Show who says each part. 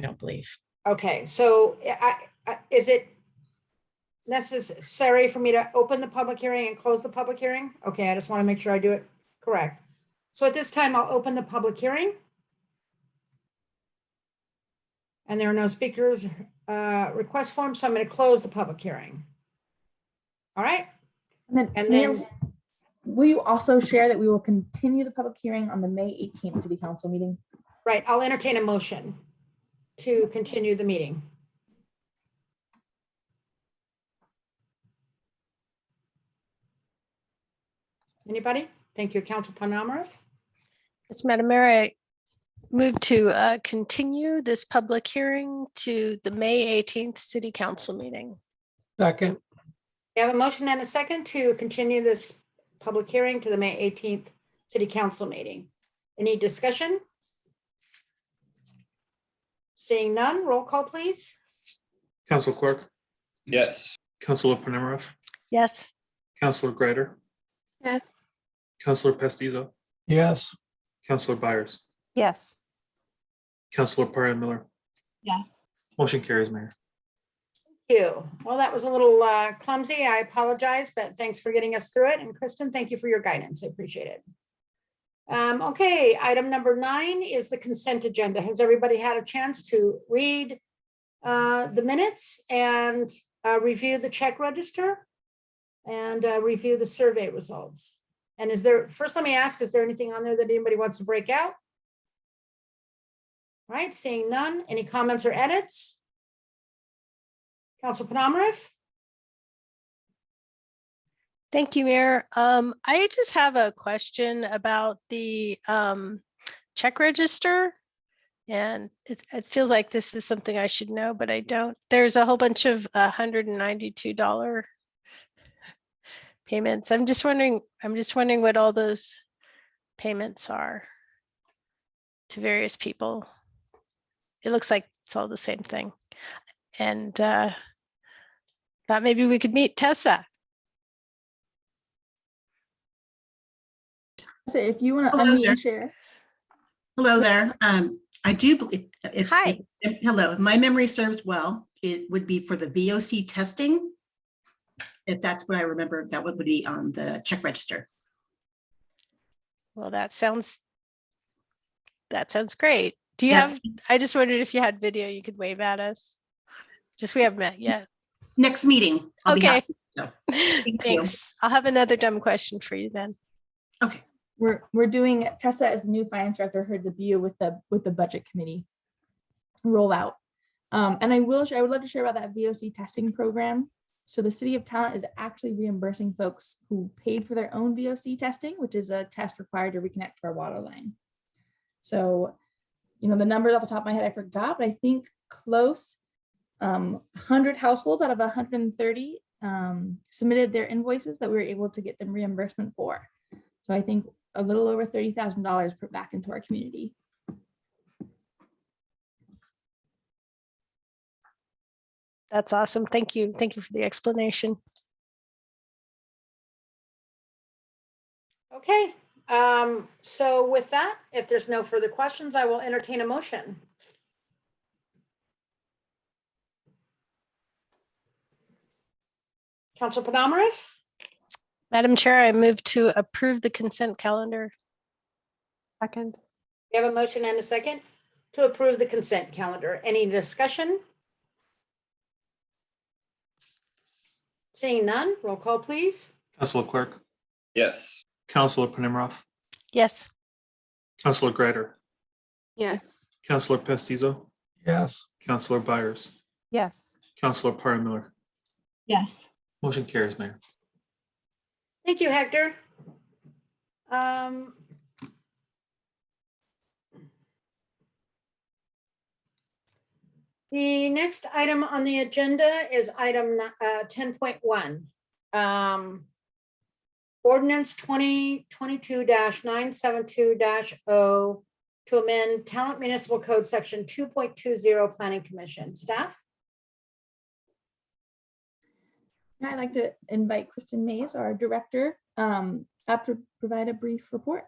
Speaker 1: I don't believe.
Speaker 2: Okay, so I, I, is it necessary for me to open the public hearing and close the public hearing? Okay, I just want to make sure I do it correct. So at this time, I'll open the public hearing. And there are no speakers, uh, request form, so I'm going to close the public hearing. All right,
Speaker 3: And then,
Speaker 2: And
Speaker 3: Mayor,
Speaker 2: then-
Speaker 3: will you also share that we will continue the public hearing on the May 18th city council meeting?
Speaker 2: right, I'll entertain a motion to continue the meeting. Anybody? Thank you, Council Panamarev.
Speaker 4: Yes, Madam Mayor, I move to uh, continue this public hearing to the May 18th City Council meeting.
Speaker 5: Second,
Speaker 2: We have a motion and a second to continue this public hearing to the May 18th City Council meeting. Any discussion? Seeing none, roll call, please.
Speaker 6: Council Clark,
Speaker 7: Yes.
Speaker 6: Councilor Panemarov,
Speaker 4: Yes.
Speaker 6: Councilor Greider,
Speaker 8: yes,
Speaker 6: Councilor Pestizo,
Speaker 5: yes,
Speaker 6: Councilor Byers,
Speaker 3: Yes.
Speaker 6: Councilor Perrin Miller.
Speaker 8: yes.
Speaker 6: Motion carries, Mayor.
Speaker 2: Thank you. Well, that was a little uh, clumsy. I apologize, but thanks for getting us through it. And Kristen, thank you for your guidance. I appreciate it. Um, Okay, item number nine is the consent agenda. Has everybody had a chance to read uh, the minutes and uh, review the check register? And uh, review the survey results? And is there, first, let me ask, is there anything on there that anybody wants to break out? All right, seeing none. Any comments or edits? Council Panamarev?
Speaker 4: Thank you, Mayor. Um, I just have a question about the um, check register. And it, it feels like this is something I should know, but I don't. There's a whole bunch of $192 payments. I'm just wondering, I'm just wondering what all those payments are to various people. It looks like it's all the same thing. And uh, thought maybe we could meet Tessa.
Speaker 3: So if you want to
Speaker 8: Hello
Speaker 3: unmute
Speaker 8: there.
Speaker 3: and share.
Speaker 8: Hello there. Um, I do believe. if-
Speaker 4: Hi.
Speaker 8: if- Hello, if my memory serves well, it would be for the VOC testing. If that's what I remember, that would be on the check register.
Speaker 4: Well, that sounds, that sounds great. Do you
Speaker 8: Yeah.
Speaker 4: have, I just wondered if you had video you could wave at us? Just we haven't met yet.
Speaker 8: Next meeting. I'll be
Speaker 4: Okay.
Speaker 8: happy. so. you.
Speaker 4: Thanks. I'll have another dumb question for you then.
Speaker 3: We're, we're doing, Tessa as the new finance director heard the BU with the, with the budget committee rollout. Um, and I will, share- I would love to share about that VOC testing program. So the city of talent is actually reimbursing folks who paid for their own VOC testing, which is a test required to reconnect to our water line. So, you know, the numbers off the top of my head, I forgot, but I think close um, 100 households out of 130 um, submitted their invoices that we were able to get them reimbursement for. So I think a little over thirty thousand dollars put back into our community.
Speaker 4: That's awesome. Thank you. Thank you for the explanation.
Speaker 2: Okay, um, so with that, if there's no further questions, I will entertain a motion. Council Panamarev,
Speaker 4: Madam Chair, I move to approve the consent calendar.
Speaker 9: Second,
Speaker 2: you have a motion and a second to approve the consent calendar. Any discussion? Seeing none, roll call, please.
Speaker 6: Councilor Clark,
Speaker 7: Yes.
Speaker 6: Councilor Panemarov,
Speaker 4: Yes.
Speaker 6: Councilor Greider,
Speaker 8: Yes.
Speaker 6: Councilor Pestizo,
Speaker 5: yes.
Speaker 6: Councilor Byers,
Speaker 9: yes.
Speaker 6: Councilor Perrin Miller.
Speaker 9: Yes.
Speaker 6: Motion carries, Mayor.
Speaker 2: Thank you, Hector. Um, The next item on the agenda is item uh, ten point one. Um, Ordinance twenty twenty-two nine seven two 0 to amend Talent Municipal Code Section two point two zero Planning Commission. Staff?
Speaker 3: Now I'd like to invite Kristen Mays, our director, um, up to provide a brief report.